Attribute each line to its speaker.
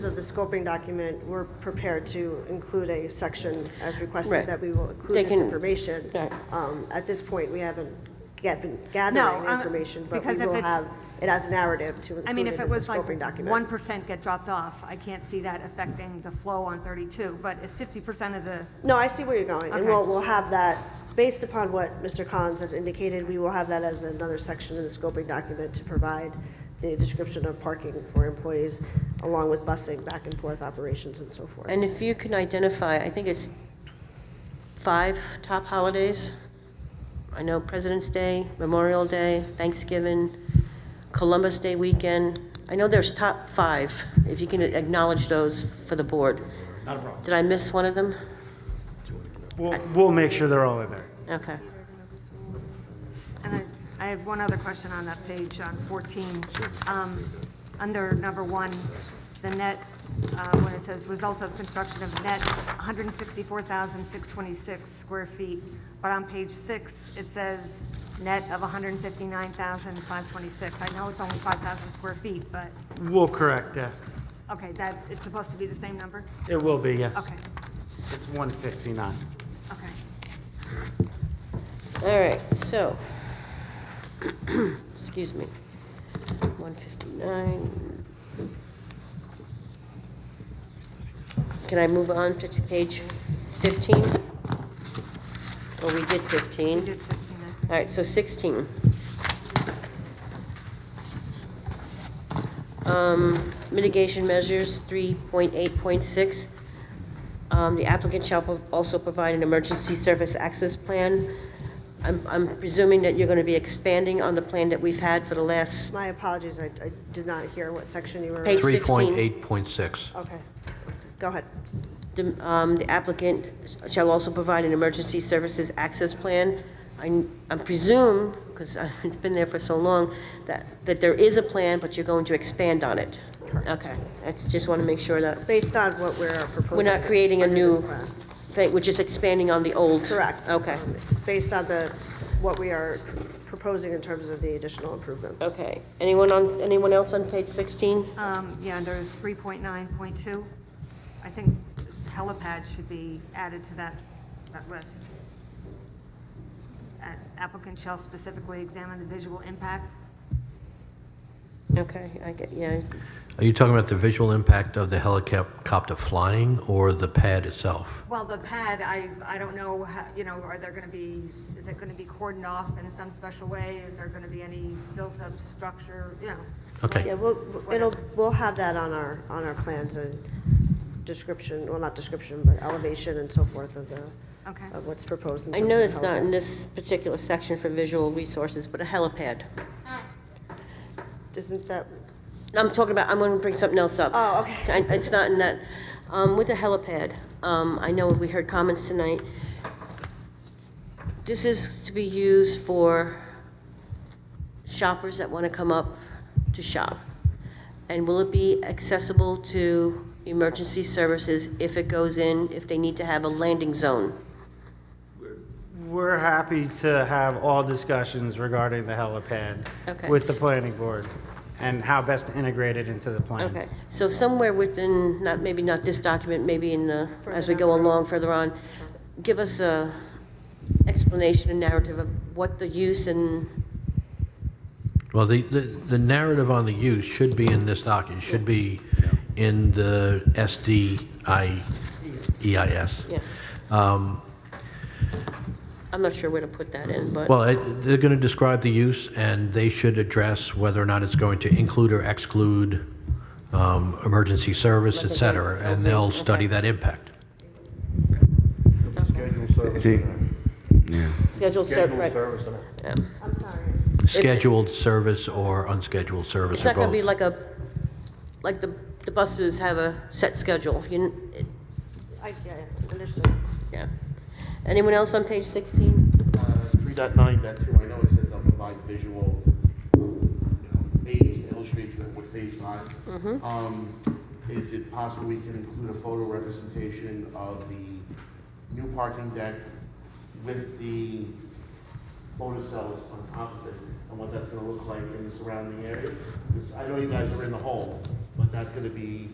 Speaker 1: of the scoping document, we're prepared to include a section as
Speaker 2: Right.
Speaker 1: requested that we will
Speaker 2: They
Speaker 1: include this
Speaker 2: can-
Speaker 1: information.
Speaker 2: Right.
Speaker 1: Um, At this point, we haven't get- been
Speaker 3: No,
Speaker 1: gathering the
Speaker 3: uh,
Speaker 1: information, but we
Speaker 3: because if
Speaker 1: will
Speaker 3: it's-
Speaker 1: have it as a narrative to
Speaker 3: I
Speaker 1: include it
Speaker 3: mean, if
Speaker 1: in
Speaker 3: it
Speaker 1: the
Speaker 3: was like
Speaker 1: scoping
Speaker 3: one
Speaker 1: document.
Speaker 3: percent get dropped off, I can't see that affecting the flow on thirty-two, but if fifty percent of the,
Speaker 1: No, I see where you're going, and
Speaker 3: Okay.
Speaker 1: we'll, we'll have that, based upon what Mr. Collins has indicated, we will have that as another section in the scoping document to provide the description of parking for employees, along with busing, back and forth operations and so forth.
Speaker 2: And if you can identify, I think it's five top holidays. I know President's Day, Memorial Day, Thanksgiving, Columbus Day weekend. I know there's top five, if you can acknowledge those for the board.
Speaker 4: Not a problem.
Speaker 2: Did I miss one of them?
Speaker 4: We'll, we'll make sure they're all in there.
Speaker 2: Okay.
Speaker 3: and I, I have one other question on that page, on fourteen. Um, under number one, the net, uh, when it says results of construction of net, one hundred and sixty-four thousand, six twenty-six square feet, but on page six, it says net of one hundred and fifty-nine thousand, five twenty-six. I know it's only five thousand square feet, but,
Speaker 4: We'll correct that.
Speaker 3: okay, that, it's supposed to be the same number?
Speaker 4: It will be, yes.
Speaker 3: Okay,
Speaker 4: It's 159.
Speaker 3: okay.
Speaker 2: All right, so, excuse me, 159. Can I move on to page 15? Well, we did 15.
Speaker 3: You did 15, I think.
Speaker 2: All right, so 16. Um, Mitigation measures, 3.8.6. Um, The applicant shall pro- also provide an emergency service access plan. I'm I'm presuming that you're going to be expanding on the plan that we've had for the last,
Speaker 1: My apologies, I, I did not hear what section you were.
Speaker 2: Page-
Speaker 5: 3.8.6.
Speaker 1: Okay, go ahead.
Speaker 2: the um, the applicant shall also provide an emergency services access plan. I I presume, because it's been there for so long, that, that there is a plan, but you're going to expand on it. Okay, I just want to make sure that,
Speaker 1: Based on what we're proposing.
Speaker 2: We're not creating a
Speaker 1: under this
Speaker 2: new-
Speaker 1: plan.
Speaker 2: that we're just expanding on the old.
Speaker 1: Correct.
Speaker 2: Okay,
Speaker 1: Um, Based on the, what we are proposing in terms of the additional improvements.
Speaker 2: okay. Anyone on, anyone else on page 16?
Speaker 3: Um, yeah, under 3.9.2, I think helipad should be added to that, that list. A- Applicant shall specifically examine the visual impact.
Speaker 2: Okay, I get, yeah,
Speaker 5: Are you talking about the visual impact of the helicopter flying or the pad itself?
Speaker 3: Well, the pad, I, I don't know, how- you know, are there going to be, is it going to be cordoned off in some special way? Is there going to be any built-up structure, you know?
Speaker 5: Okay.
Speaker 1: Yeah, we'll, it'll, we'll have that on our, on our plans and description, well, not description, but elevation and so forth of the,
Speaker 3: Okay.
Speaker 1: of what's proposed in
Speaker 2: I
Speaker 1: terms of.
Speaker 2: know it's not
Speaker 1: how-
Speaker 2: in this particular section for visual resources, but a helipad.
Speaker 1: Isn't that,
Speaker 2: I'm talking about, I'm going to bring something else up.
Speaker 1: Oh, okay.
Speaker 2: I- It's not in that, um, with the helipad, um, I know we heard comments tonight. This is to be used for shoppers that want to come up to shop. And will it be accessible to emergency services if it goes in, if they need to have a landing zone?
Speaker 4: We're happy to have all discussions regarding the helipad
Speaker 2: Okay.
Speaker 4: with the planning board and how best to integrate it into the plan.
Speaker 2: Okay, so somewhere within, not, maybe not this document, maybe in the, as we go along further on, give us a explanation and narrative of what the use and,
Speaker 5: Well, the, the the narrative on the use should be in this document, should be in the E SDIEIS.
Speaker 2: yeah.
Speaker 5: Um,
Speaker 2: I'm not sure where to put that in, but,
Speaker 5: Well, it- they're going to describe the use, and they should address whether or not it's going to include or exclude um, emergency service, et cetera, and they'll study that impact.
Speaker 6: See,
Speaker 2: schedule set, right.
Speaker 1: I'm sorry.
Speaker 5: Scheduled service or unscheduled service
Speaker 2: It's
Speaker 5: or
Speaker 2: not gonna be
Speaker 5: both.
Speaker 2: like a, like the, the buses have a set schedule, you, kn- it-
Speaker 1: I, yeah, understood.
Speaker 2: yeah. Anyone else on page 16?
Speaker 7: Three dot nine dot two, I know it says they'll provide visual, um, you know, aids to illustrate the- what they on. Um, is it possible we can include a photo representation of the new parking deck with the photocells on top of it, and what that's gonna look like in the surrounding area? 'Cause I know you guys are in the hole, but that's gonna be